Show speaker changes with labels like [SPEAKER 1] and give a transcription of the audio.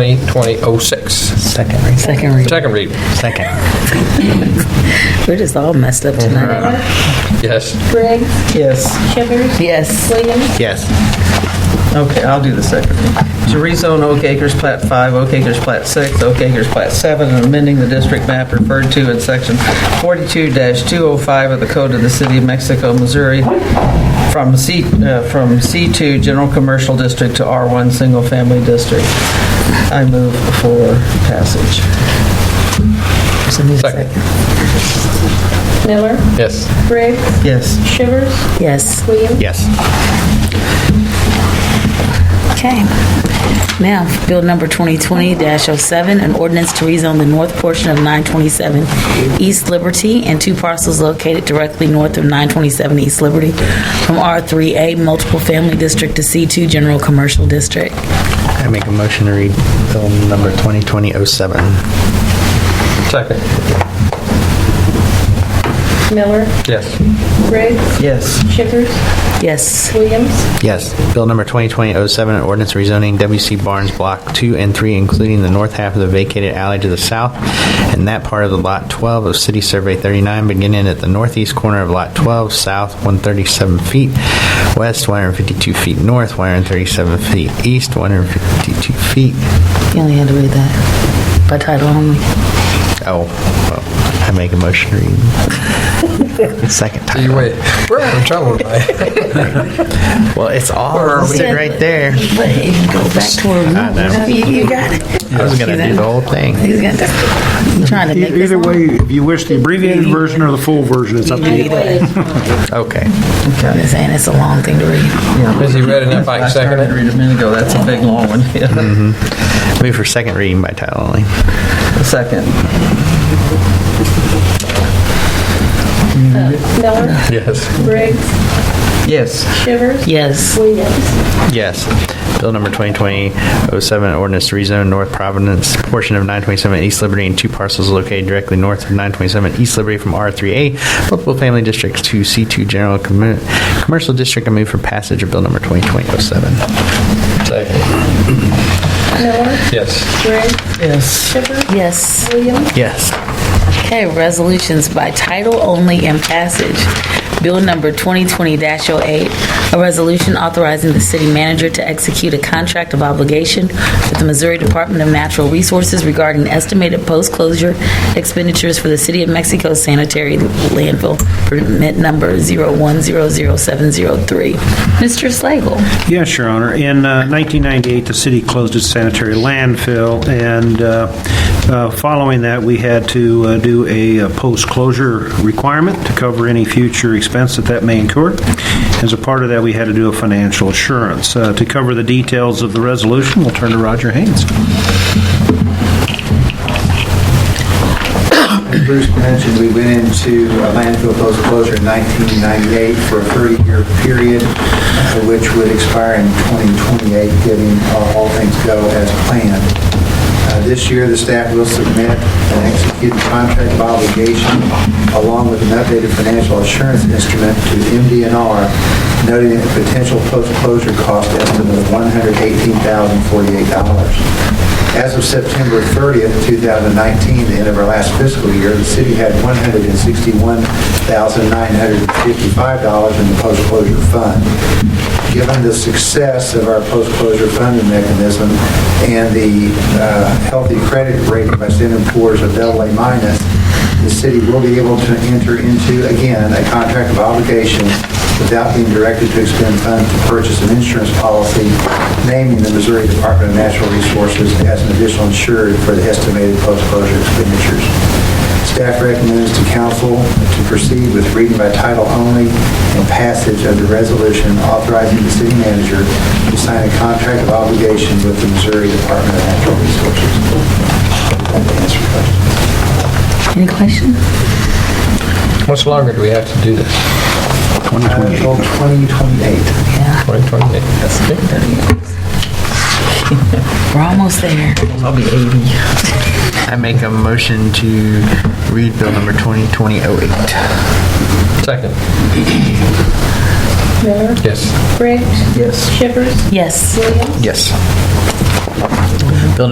[SPEAKER 1] 2020-06.
[SPEAKER 2] Second reading.
[SPEAKER 3] Second reading.
[SPEAKER 1] Second read.
[SPEAKER 2] Second.
[SPEAKER 3] We're just all messed up tonight.
[SPEAKER 4] Miller,
[SPEAKER 1] Yes.
[SPEAKER 4] Briggs,
[SPEAKER 5] Yes.
[SPEAKER 4] Shivers,
[SPEAKER 3] Yes.
[SPEAKER 4] Williams,
[SPEAKER 2] Yes.
[SPEAKER 5] Okay, I'll do the second. To rezone Oak Acres Plat 5, Oak Acres Plat 6, Oak Acres Plat 7, and amending the district map referred to in Section 42-205 of the Code of the City of Mexico, Missouri, from C, uh, from C2 General Commercial District to R1 Single Family District. I move for passage.
[SPEAKER 3] So need a
[SPEAKER 1] Second.
[SPEAKER 4] Miller,
[SPEAKER 1] Yes.
[SPEAKER 4] Briggs,
[SPEAKER 5] Yes.
[SPEAKER 4] Shivers,
[SPEAKER 3] Yes.
[SPEAKER 4] Williams.
[SPEAKER 2] Yes.
[SPEAKER 3] Okay. Now, Bill number 2020-07, an ordinance to rezone the north portion of 927 East Liberty and two parcels located directly north of 927 East Liberty from R3A Multiple Family District to C2 General Commercial District.
[SPEAKER 2] I make a motion to read bill number 2020-07.
[SPEAKER 1] Second.
[SPEAKER 4] Miller,
[SPEAKER 1] Yes.
[SPEAKER 4] Briggs,
[SPEAKER 5] Yes.
[SPEAKER 4] Shivers,
[SPEAKER 3] Yes.
[SPEAKER 4] Williams.
[SPEAKER 2] Yes. Bill number 2020-07, an ordinance rezoning WC Barnes Block 2 and 3, including the north half of the vacated alley to the south and that part of the Lot 12 of City Survey 39, beginning at the northeast corner of Lot 12, south 137 feet, west 152 feet north, 137 feet east, 152 feet
[SPEAKER 3] You only had to read that by title only.
[SPEAKER 2] Oh, well, I make a motion to read. Second
[SPEAKER 1] You
[SPEAKER 2] time.
[SPEAKER 1] wait. We're having trouble tonight.
[SPEAKER 2] Well, it's all
[SPEAKER 1] Where are we?
[SPEAKER 2] listed right there.
[SPEAKER 3] But if you go back to where we
[SPEAKER 2] I know.
[SPEAKER 3] were, you you got it.
[SPEAKER 2] I was gonna do the whole thing.
[SPEAKER 3] He's gonna, I'm trying to
[SPEAKER 6] E-
[SPEAKER 3] make this
[SPEAKER 6] Either
[SPEAKER 3] long.
[SPEAKER 6] way, if you wish the abbreviated version or the full version, it's up to you.
[SPEAKER 2] Okay.
[SPEAKER 3] I'm just saying it's a long thing to read.
[SPEAKER 1] Is he ready enough? I
[SPEAKER 5] I
[SPEAKER 1] can second
[SPEAKER 5] started to
[SPEAKER 1] it.
[SPEAKER 5] read a minute ago. That's a big, long one. Yeah.
[SPEAKER 2] Move for second reading by title only.
[SPEAKER 5] Second.
[SPEAKER 4] Miller,
[SPEAKER 1] Yes.
[SPEAKER 4] Briggs,
[SPEAKER 5] Yes.
[SPEAKER 4] Shivers,
[SPEAKER 3] Yes.
[SPEAKER 4] Williams.
[SPEAKER 2] Yes. Bill number 2020-07, ordinance to rezone North Providence, portion of 927 East Liberty and two parcels located directly north of 927 East Liberty from R3A, multiple family districts to C2 General Commer- Commercial District. I move for passage of bill number 2020-07.
[SPEAKER 1] Second.
[SPEAKER 4] Miller,
[SPEAKER 1] Yes.
[SPEAKER 4] Briggs,
[SPEAKER 5] Yes.
[SPEAKER 4] Shivers,
[SPEAKER 3] Yes.
[SPEAKER 4] Williams.
[SPEAKER 2] Yes.
[SPEAKER 3] Okay, resolutions by title only and passage. Bill number 2020-08, a resolution authorizing the city manager to execute a contract of obligation with the Missouri Department of Natural Resources regarding estimated post-closure expenditures for the City of Mexico sanitary landfill permit number 0100703. Mr. Slagle.
[SPEAKER 6] Yes, Your Honor. In uh, 1998, the city closed its sanitary landfill, and uh, uh, following that, we had to uh, do a uh, post-closure requirement to cover any future expense that that may incur. As a part of that, we had to do a financial assurance. Uh, To cover the details of the resolution, we'll turn to Roger Haynes.
[SPEAKER 7] Bruce mentioned, we went into a landfill closure in 1998 for a 30-year period, uh, which would expire in 2028, giving uh, all things go as planned. Uh, This year, the staff will submit an executed contract of obligation along with an updated financial assurance instrument to MDNR, noting a potential post-closure cost estimate of $118,048. As of September 30th, 2019, the end of our last fiscal year, the city had $161,955 in the post-closure fund. Given the success of our post-closure funding mechanism and the uh, healthy credit rating by Standard and Poor's of AA minus, the city will be able to enter into, again, a contract of obligation without being directed to expend funds to purchase an insurance policy naming the Missouri Department of Natural Resources as an additional insured for the estimated post-closure expenditures. Staff recommends to council to proceed with reading by title only and passage of the resolution authorizing the city manager to sign a contract of obligation with the Missouri Department of Natural Resources. That answers your
[SPEAKER 3] Any
[SPEAKER 7] question.
[SPEAKER 3] questions?
[SPEAKER 1] Much longer do we have to do this?
[SPEAKER 7] Until 2028.
[SPEAKER 1] 2028.
[SPEAKER 3] We're almost there.
[SPEAKER 5] I'll be 80.
[SPEAKER 2] I make a motion to read bill number 2020-08.
[SPEAKER 1] Second.
[SPEAKER 4] Miller,
[SPEAKER 1] Yes.
[SPEAKER 4] Briggs,
[SPEAKER 5] Yes.
[SPEAKER 4] Shivers,
[SPEAKER 3] Yes.
[SPEAKER 4] Williams.
[SPEAKER 2] Yes. Bill